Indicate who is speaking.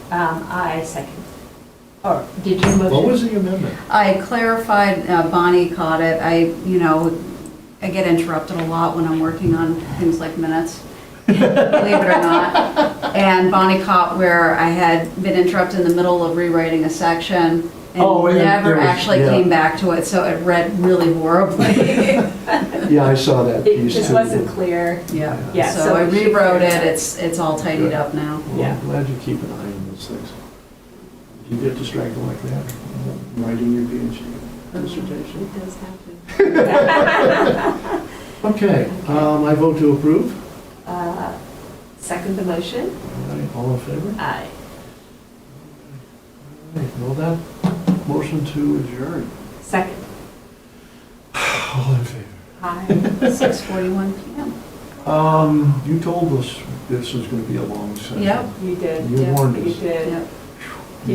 Speaker 1: Um, I second. Or, did you move?
Speaker 2: What
Speaker 1: it?
Speaker 2: was the amendment?
Speaker 3: I clarified, uh, Bonnie caught it, I, you know, I get interrupted a lot when I'm working on things like minutes, believe it or not. And Bonnie caught where I had been interrupted in the middle of rewriting a section
Speaker 2: Oh,
Speaker 3: and
Speaker 2: and there
Speaker 3: never
Speaker 2: was-
Speaker 3: actually
Speaker 2: yeah.
Speaker 3: came back to it, so it read really horribly.
Speaker 2: Yeah, I saw that
Speaker 1: It
Speaker 2: piece too.
Speaker 1: just wasn't clear.
Speaker 3: Yeah,
Speaker 1: Yeah,
Speaker 3: so
Speaker 1: so
Speaker 3: I
Speaker 1: we should
Speaker 3: rewrote
Speaker 1: clear
Speaker 3: it,
Speaker 1: that.
Speaker 3: it's, it's all tidied up now.
Speaker 2: Well,
Speaker 1: Yeah.
Speaker 2: I'm glad you keep an eye on those things. You get distracted like that, writing your PhD dissertation.
Speaker 1: It does happen.
Speaker 2: Okay, um, I vote to approve.
Speaker 1: Uh, Second the motion?
Speaker 2: All right, All in favor?
Speaker 1: Aye.
Speaker 2: All right, Well, that motion to adjourn.
Speaker 1: Second.
Speaker 2: All in favor?
Speaker 1: Aye.
Speaker 3: 6:41 PM.
Speaker 2: Um, you told us this was gonna be a long session.
Speaker 3: Yep.
Speaker 1: You did.
Speaker 2: You warned
Speaker 1: You
Speaker 2: us.
Speaker 1: did.
Speaker 3: Yep.